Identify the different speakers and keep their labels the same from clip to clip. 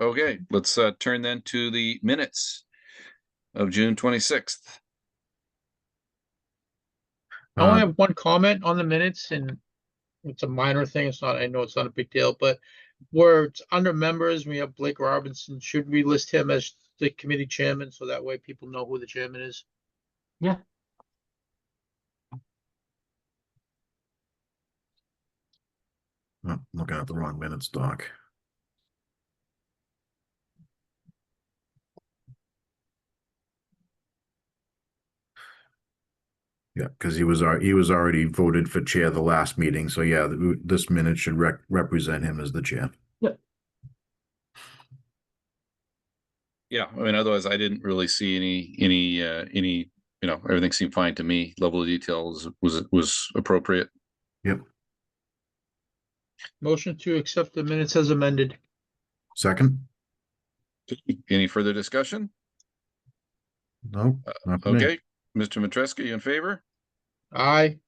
Speaker 1: Okay, let's uh turn then to the minutes of June twenty-sixth.
Speaker 2: Oh, I only
Speaker 3: Uh,
Speaker 2: have one comment on the minutes and it's a minor thing. It's not, I know it's not a big deal, but where it's under members, we have Blake Robinson. Should we list him as the committee chairman? So that way people know who the chairman is.
Speaker 3: oh, Looking at the wrong minutes, Doc. Yeah, because he was, al- he was already voted for chair the last meeting, so yeah, th- this minute should rec- represent him as the chair.
Speaker 1: Yeah, I mean, otherwise I didn't really see any, any, uh, any, you know, everything seemed fine to me. Level of details was, was appropriate.
Speaker 2: Motion to accept the minutes as amended.
Speaker 3: Second?
Speaker 1: Any further discussion?
Speaker 3: No? not for me.
Speaker 1: Uh, Okay, Mr. Matreska, you in favor?
Speaker 2: Aye.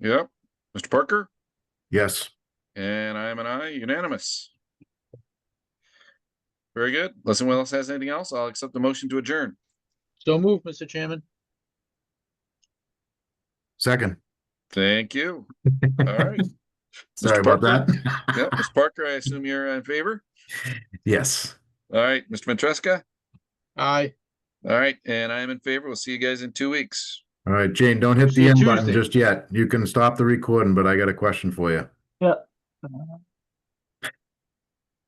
Speaker 1: Yep. Mr. Parker?
Speaker 3: Yes,
Speaker 1: And I am an I, unanimous. Very good. Unless anyone else has anything else, I'll accept the motion to adjourn.
Speaker 2: So move, Mr. Chairman.
Speaker 3: second.
Speaker 1: Thank you. All right.
Speaker 3: Sorry about that.
Speaker 1: Yep, Mr. Parker, I assume you're in favor?
Speaker 3: Yes.
Speaker 1: All right, Mr. Matreska?
Speaker 2: Aye.
Speaker 1: All right, and I am in favor. We'll see you guys in two weeks.
Speaker 3: All right, Jane, don't hit
Speaker 2: See
Speaker 3: the
Speaker 2: you
Speaker 3: end button
Speaker 2: Tuesday.
Speaker 3: just yet. You can stop the recording, but I got a question for you.